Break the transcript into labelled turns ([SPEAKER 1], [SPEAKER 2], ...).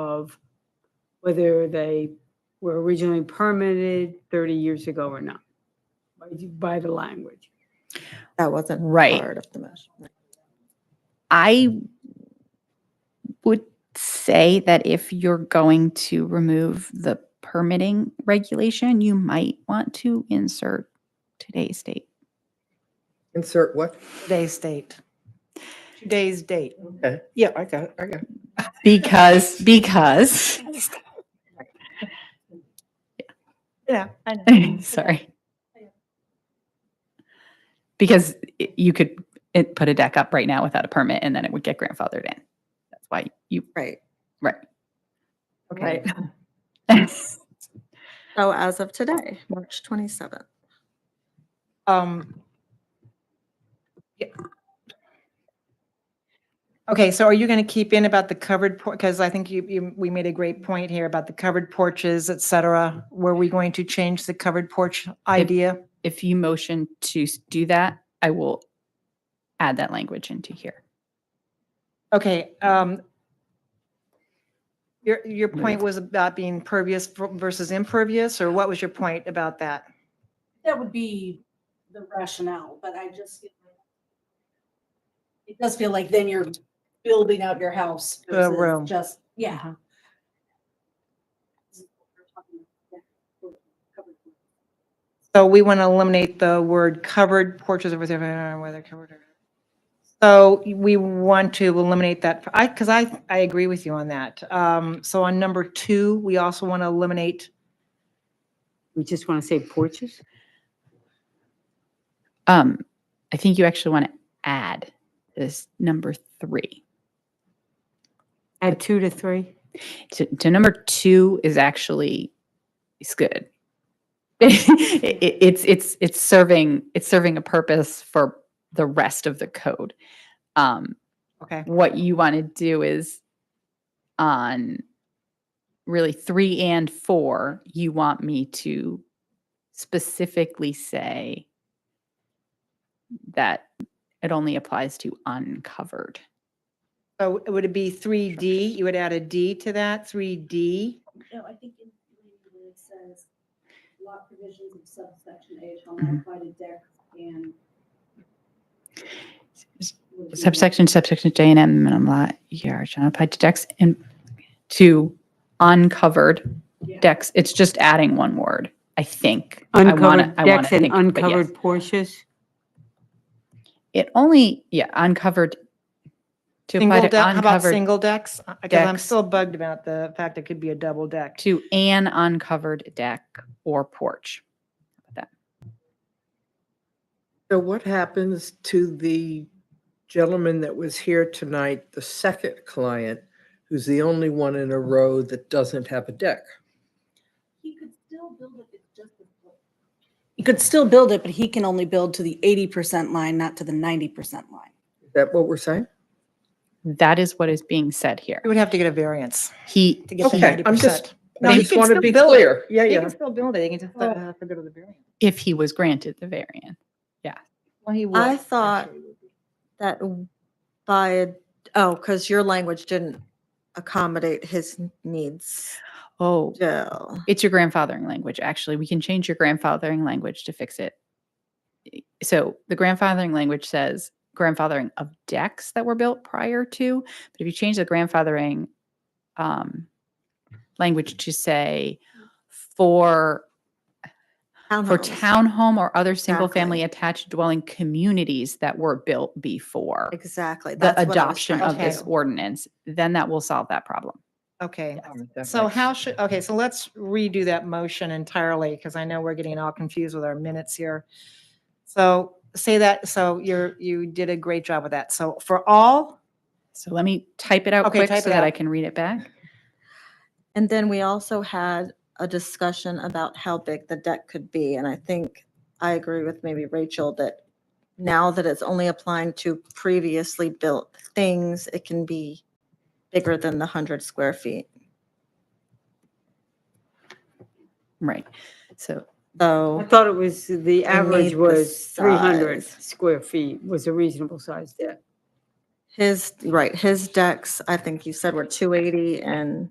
[SPEAKER 1] of whether they were originally permitted 30 years ago or not by, by the language.
[SPEAKER 2] That wasn't
[SPEAKER 3] Right.
[SPEAKER 2] part of the motion.
[SPEAKER 3] I would say that if you're going to remove the permitting regulation, you might want to insert today's date.
[SPEAKER 4] Insert what?
[SPEAKER 5] Today's date. Today's date.
[SPEAKER 4] Okay. Yeah, I got it. I got it.
[SPEAKER 3] Because, because,
[SPEAKER 5] Yeah, I
[SPEAKER 3] sorry. Because i- you could it, put a deck up right now without a permit and then it would get grandfathered in. That's why you,
[SPEAKER 2] Right.
[SPEAKER 3] right.
[SPEAKER 5] Okay.
[SPEAKER 2] So as of today, March 27th.
[SPEAKER 5] Um. yeah. Okay, so are you going to keep in about the covered porch? Because I think you, you, we made a great point here about the covered porches, et cetera. Were we going to change the covered porch idea?
[SPEAKER 3] If you motion to s- do that, I will add that language into here.
[SPEAKER 5] Okay, um, your, your
[SPEAKER 3] Move.
[SPEAKER 5] point was about being pervious ver- versus impervious, or what was your point about that?
[SPEAKER 6] That would be the rationale, but I just. feel like- It does feel like then you're building out your house.
[SPEAKER 5] The
[SPEAKER 6] versus
[SPEAKER 5] room. Mm-hmm.
[SPEAKER 6] Just, yeah.
[SPEAKER 5] So we want to eliminate the word covered porches or whatever, whether covered or. So we want to eliminate that, I, because I, I agree with you on that. Um, so on number two, we also want to eliminate,
[SPEAKER 1] We just want to say porches?
[SPEAKER 3] Um, I think you actually want to add this number three.
[SPEAKER 1] Add two to three?
[SPEAKER 3] To, to number two is actually it's good. It- it- it's it's it's serving it's serving a purpose for the rest of the code. Um,
[SPEAKER 5] okay,
[SPEAKER 3] what you want to do is on really three and four, you want me to specifically say that it only applies to uncovered.
[SPEAKER 5] so would it be three D? You would add a D to that, three D?
[SPEAKER 6] No, I think in three, it says lot provisions of subsection A shall not apply to decks and.
[SPEAKER 3] Subsection, subsection J and M minimum lot yard shall apply to decks and to uncovered
[SPEAKER 6] Yeah.
[SPEAKER 3] decks. It's just adding one word, I think. I wanna-
[SPEAKER 1] Uncovered
[SPEAKER 3] I wanna
[SPEAKER 1] decks and
[SPEAKER 3] think, but yes.
[SPEAKER 1] uncovered porches?
[SPEAKER 3] It only, yeah, uncovered. To apply
[SPEAKER 5] Single
[SPEAKER 3] to
[SPEAKER 5] deck, how about
[SPEAKER 3] uncovered,
[SPEAKER 5] single decks? Because I'm
[SPEAKER 3] decks.
[SPEAKER 5] still bugged about the fact it could be a double deck.
[SPEAKER 3] to an uncovered deck or porch.
[SPEAKER 4] So what happens to the gentleman that was here tonight, the second client, who's the only one in a row that doesn't have a deck?
[SPEAKER 6] He could still build it, it's just. He could still build it, but he can only build to the eighty percent line, not to the ninety percent line.
[SPEAKER 4] Is that what we're saying?
[SPEAKER 3] That is what is being said here.
[SPEAKER 5] You would have to get a variance
[SPEAKER 3] He,
[SPEAKER 5] to get the
[SPEAKER 4] Okay,
[SPEAKER 5] ninety
[SPEAKER 4] I'm just-
[SPEAKER 5] percent.
[SPEAKER 4] I just want to be clear. Yeah,
[SPEAKER 5] They
[SPEAKER 4] yeah.
[SPEAKER 5] can still build it, they can just uh, have to go to the variance.
[SPEAKER 3] if he was granted the variant.
[SPEAKER 5] Well, he would.
[SPEAKER 2] I thought that w- by, a- oh, because your language didn't accommodate his n- needs
[SPEAKER 3] Oh,
[SPEAKER 2] still.
[SPEAKER 3] it's your grandfathering language, actually. We can change your grandfathering language to fix it. I- So the grandfathering language says grandfathering of decks that were built prior to, but if you change the grandfathering um, language to say for for
[SPEAKER 2] Townhomes.
[SPEAKER 3] townhome or other single-family
[SPEAKER 2] Uh-huh. Exactly.
[SPEAKER 3] attached dwelling communities that were built before
[SPEAKER 2] Exactly. that's
[SPEAKER 3] the
[SPEAKER 2] what I was
[SPEAKER 3] adoption
[SPEAKER 2] trying
[SPEAKER 3] of
[SPEAKER 2] to
[SPEAKER 3] this
[SPEAKER 2] do.
[SPEAKER 3] ordinance, then that will solve that problem.
[SPEAKER 5] Okay,
[SPEAKER 4] That
[SPEAKER 5] so
[SPEAKER 4] makes-
[SPEAKER 5] how should, okay, so let's redo that motion entirely, because I know we're getting all confused with our minutes here. So say that, so you're, you did a great job with that. So for all,
[SPEAKER 3] So let me type it out
[SPEAKER 5] Okay,
[SPEAKER 3] quick
[SPEAKER 5] type
[SPEAKER 3] so
[SPEAKER 5] it
[SPEAKER 3] that I
[SPEAKER 5] out.
[SPEAKER 3] can read it back.
[SPEAKER 2] And then we also had a discussion about how big the deck could be. And I think I agree with maybe Rachel that now that it's only applying to previously built things, it can be bigger than the 100 square feet.
[SPEAKER 3] Right. So
[SPEAKER 1] I
[SPEAKER 2] So
[SPEAKER 1] thought it was, the average
[SPEAKER 2] the
[SPEAKER 1] was 300
[SPEAKER 2] size.
[SPEAKER 1] square feet was a reasonable size deck.
[SPEAKER 2] his, right, his decks, I think you said were 280 and